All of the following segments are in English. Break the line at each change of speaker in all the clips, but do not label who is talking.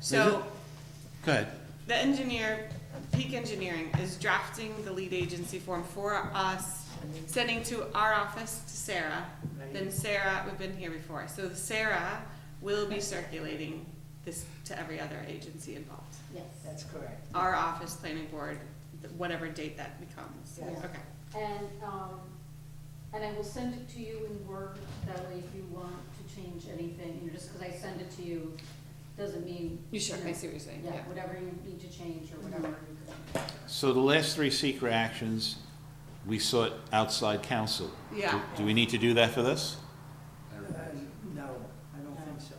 So
Go ahead.
the engineer, Peak Engineering, is drafting the lead agency form for us, sending to our office to Sarah. Then Sarah, we've been here before, so Sarah will be circulating this to every other agency involved.
Yes,
That's correct.
Our office, planning board, th- whatever date that becomes.
Yeah.
Okay.
and, um, and I will send it to you in Word, that way if you want to change anything, you know, just because I send it to you, doesn't mean. know,
what you're saying,
Yeah, Mm-hmm. whatever you need to change or whatever. you could-
So the last three secret actions, we sought outside counsel.
Yeah.
Do we need to do that for this?
Uh, No, I don't think so,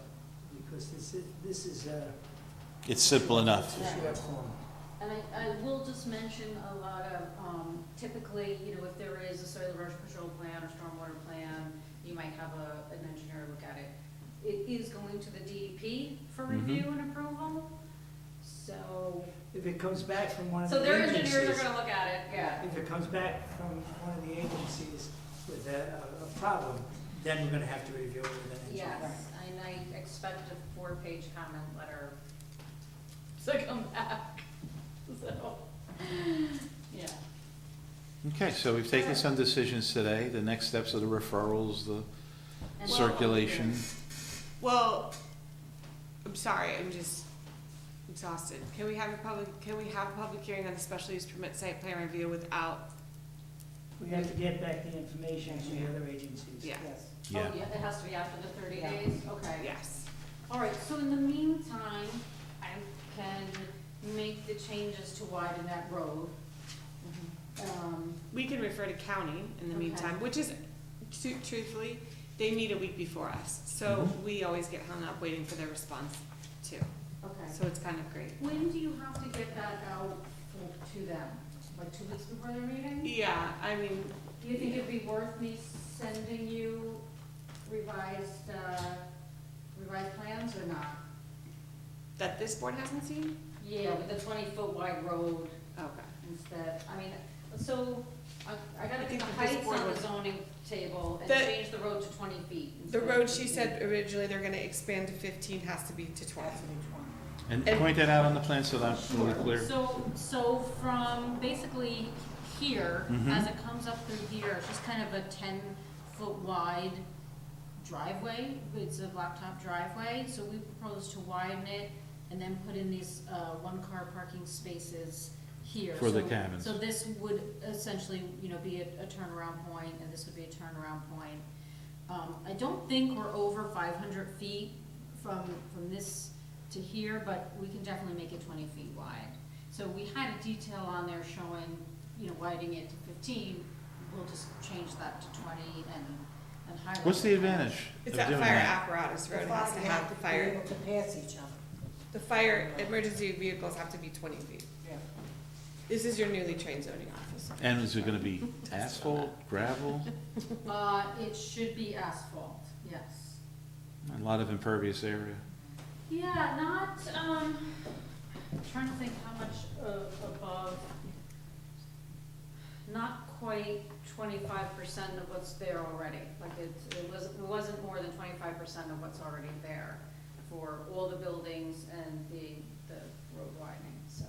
because this is, this is a.
It's simple enough.
It's a short form.
And I, I will just mention a lot of, um, typically, you know, if there is a soil erosion control plan or stormwater plan, you might have a, an engineer look at it. It is going to the DEP for
Mhm.
review and approval, so,
If it comes back from one of Uh, the
so their
agencies.
engineers are gonna look at it, yeah.
If it comes back from one of the agencies with a, a- a problem, then we're gonna have to review it with an engineer.
Yes, and I expect a four-page comment letter to
"Oh,
come
ah,
back, so, yeah.
Okay, so we've taken some decisions today. The next steps are the referrals, the
And-
circulation.
Well, I'm sorry, I'm just exhausted. Can we have a public, can we have a public hearing on the special use permit site plan review without,
We have to get back the information to the other agencies.
Yeah.
Oh,
Yeah.
yeah, it has to be after the thirty
Yeah.
days, okay.
yes?
All right, so in the meantime, I can make the changes to widen that road.
Mm-hmm.
Um,
We can refer to county in the
Okay.
meantime, which is, tru- truthfully, they meet a week before us. So we always get hung up waiting for their response too.
okay.
So it's kind of great.
When do you have to get that out for- to them? Like two weeks before their meeting?
Yeah, I mean,
Do you think it'd be worth me sending you revised, uh, revised plans or not?
that this board hasn't seen?
Yeah, with the twenty-foot wide road
Okay.
instead, I mean, so, I, I
I
gotta
think
think the
that this
heights
board
on the
was-
zoning table and
The-
change the road to twenty feet.
The
instead of
road she
15.
said originally they're gonna expand to fifteen has to be to twenty.
That's an each one.
And point that out on the plan so that we're clear.
So, so from basically here,
Mhm.
as it comes up through here, it's just kind of a ten-foot wide driveway. It's a blacktop driveway, so we propose to widen it and then put in these, uh, one-car parking spaces here.
For the
So-
cabins.
So this would essentially, you know, be a, a turnaround point, and this would be a turnaround point. Um, I don't think we're over five hundred feet from, from this to here, but we can definitely make it twenty feet wide. So we had a detail on there showing, you know, widening it to fifteen, we'll just change that to twenty and, and highlight.
What's the
it.
advantage of
It's
doing
that fire
that?
apparatus
The
road has to
fire
have the
Be
fire,
able to pass each other,
the fire emergency vehicles have to be twenty feet.
yeah.
This is your newly trained zoning officer.
And is it gonna be asphalt, gravel,
Uh, it should be asphalt, yes.
a lot of impervious area?
Yeah, not, um, trying to think how much uh, above, not quite twenty-five percent of what's there already. Like it, it was, it wasn't more than twenty-five percent of what's already there for all the buildings and the, the road widening, so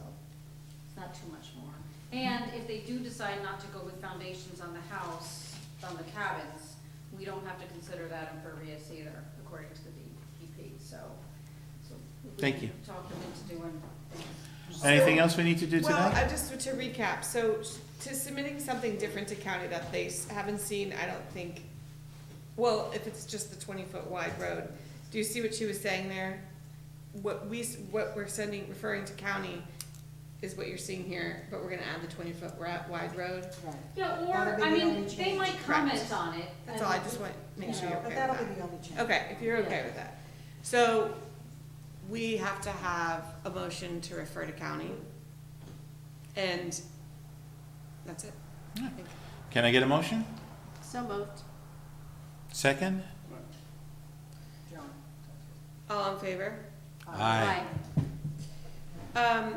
it's not too much more. And if they do decide not to go with foundations on the house, on the cabins, we don't have to consider that impervious either, according to the DEP, so. so we
Thank you.
Talk them into doing things.
Anything else we need to do today?
Well, I just, to recap, so to submitting something different to county that they s- haven't seen, I don't think, well, if it's just the twenty-foot wide road, do you see what she was saying there? What we, s- what we're sending, referring to county is what you're seeing here, but we're gonna add the twenty-foot wide road.
Yeah,
That'll
or,
be
I
the only
mean, they
change.
might
Correct.
comment on it.
That's
and-
all, I just want, to make sure you're okay
But
with
that'll
that.
be the only change.
Okay, if you're okay with that. So, we have to have a motion to refer to county. And that's it. I think.
Can I get a motion?
So moved.
Second?
John.
All in favor?
Aye.
Um,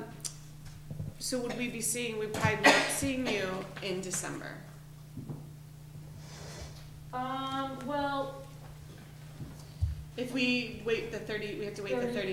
so would we be seeing, we probably not seeing you in December.
Um, well, Um,
If we wait the thirty, we have to wait the
Thirty.
thirty